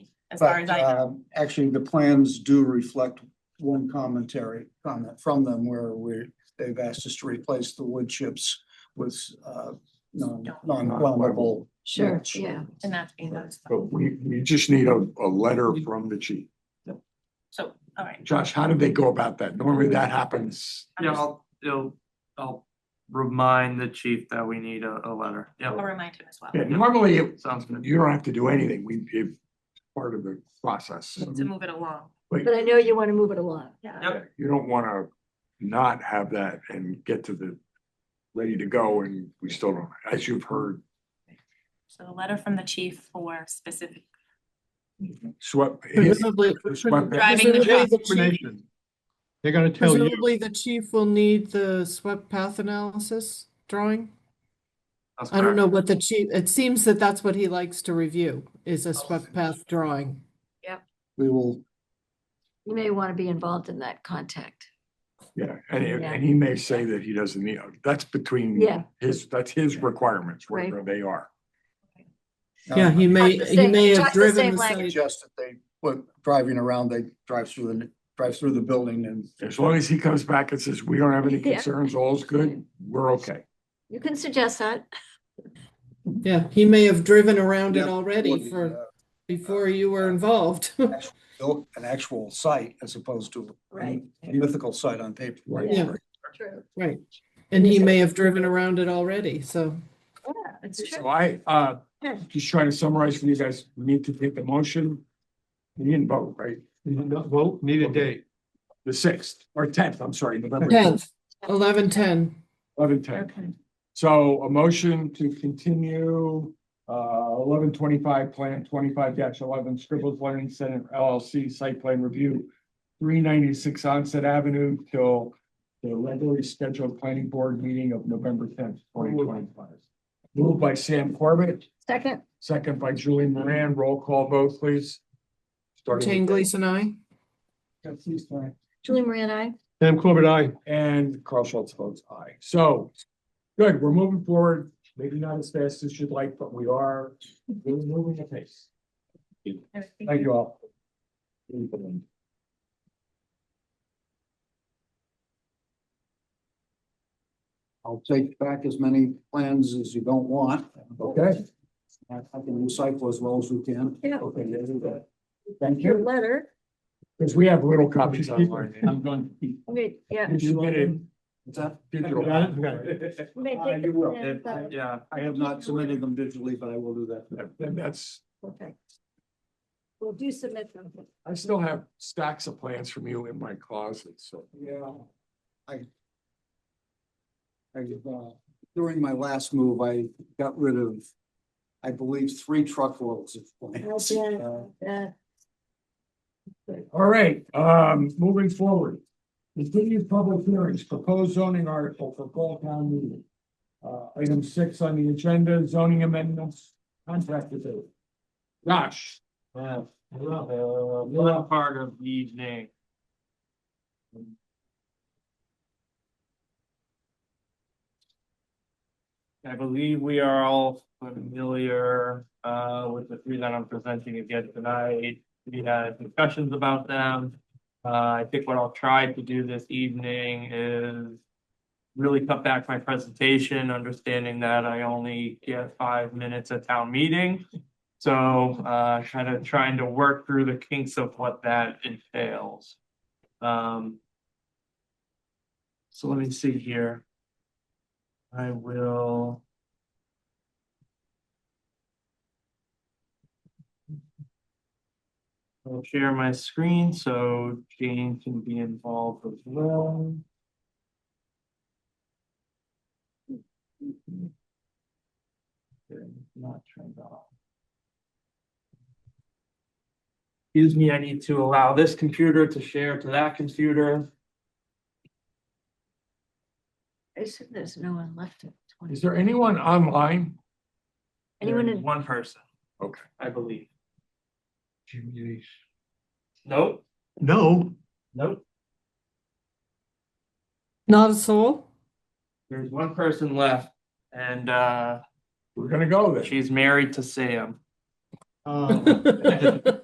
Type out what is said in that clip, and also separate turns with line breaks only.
as far
But
as
uh,
I know.
um, actually, the plans do reflect one commentary comment from them where we, they've asked us to replace the wood chips with uh non, non-flammable.
Sure,
mulch.
yeah.
And that's being done.
But we, we just need a, a letter from the chief.
So, all right.
Josh, how did they go about that? Normally that happens.
I'm
Yeah,
just-
I'll, it'll, I'll remind the chief that we need a, a letter.
I'll
Yeah,
remind him as well.
Yeah, normally it-
sounds good.
you don't have to do anything. We, if part of the process.
To move it along.
But I know you want to move it along.
Yeah.
Yep.
You don't wanna not have that and get to the, ready to go and we still don't, as you've heard,
So a letter from the chief for specific,
swept.
Presumably,
swept-
Driving the
presumably the chief- Determination. They're gonna tell you.
Presumably, the chief will need the swept path analysis drawing.
That's
I don't know
correct.
what the chief, it seems that that's what he likes to review, is a swept path drawing.
We will,
You may want to be involved in that contact.
Yeah, and, he-
Yeah.
and he may say that he doesn't need, that's between
Yeah.
his, that's his requirements, wherever they are.
Yeah,
uh,
he may,
Talk the
he
same-
may
talk
have
the same
driven the
language.
site.
suggest that they, when driving around, they drive through the, drive through the building and
As long as he comes back and says, we don't have any
Yeah.
concerns, all's good, we're okay.
You can suggest that.
Yeah, he may have driven around it
Yeah,
already for, before you were involved.
uh, built an actual site as opposed to
Right.
a mythical site on paper.
Yeah.
True.
Right, and he may have driven around it already, so.
Yeah, it's
So
true.
I, uh,
Yeah.
just trying to summarize for you guys, we need to take the motion. We didn't vote, right?
Well, need a date.
The sixth or tenth, I'm sorry, November.
Tenth, eleven, ten.
Eleven ten.
Okay.
So a motion to continue, uh, eleven twenty-five plan, twenty-five eleven, Scribbles Learning Center LLC site plan review. Three ninety-six Onset Avenue till the regularly scheduled planning board meeting of November tenth, twenty twenty-five. Moved by Sam Corbett,
Second,
second by Julie Moran, roll call vote, please. Starting with-
Jane Gleason, I.
Yeah, please, Diane.
Julie Marie and I.
Sam Corbett, I.
And Carl Schultz votes aye. So, good, we're moving forward, maybe not as fast as you'd like, but we are, we're moving at pace. Thank you all.
I'll take back as many plans as you don't want.
Okay.
I I can recycle as well as we can.
Yeah.
Okay, yeah, do that. Thank
Your
you.
letter.
Because we have little copies online. I'm going to keep.
Wait, yeah.
Did you get it?
What's that?
Digital.
Got it? Okay.
You may
Uh,
take
you
the
will.
plans
Yeah,
out.
Yeah,
I have not submitted them digitally, but I will do that.
And that's,
Perfect. Well, do submit them.
I still have stacks of plans from you in my closet, so.
Yeah. I. I, uh, during my last move, I got rid of, I believe, three truckloads of plants. Uh,
Okay, uh,
All right, um, moving forward. Continued public hearings, proposed zoning article for fall town meeting. Uh, item six on the agenda, zoning amendments, contract debate. Josh.
yeah. One uh, part of E the evening. I believe we are all familiar uh with the three that I'm presenting again tonight. We had discussions about them. Uh, I think what I'll try to do this evening is really cut back my presentation, understanding that I only get five minutes at town meeting. So uh kind of trying to work through the kinks of what that entails. Um. So let me see here. I will. I'll share my screen so Jane can be involved as well. Okay, Not turned off. Excuse me, I need to allow this computer to share to that computer.
I assume there's no one left. at 20.
Is there anyone online?
Anyone
There's
in-
One person,
Okay.
I believe. Nope,
No,
nope.
Not a soul?
There's one person left and uh
We're gonna go there.
she's married to Sam.
uh,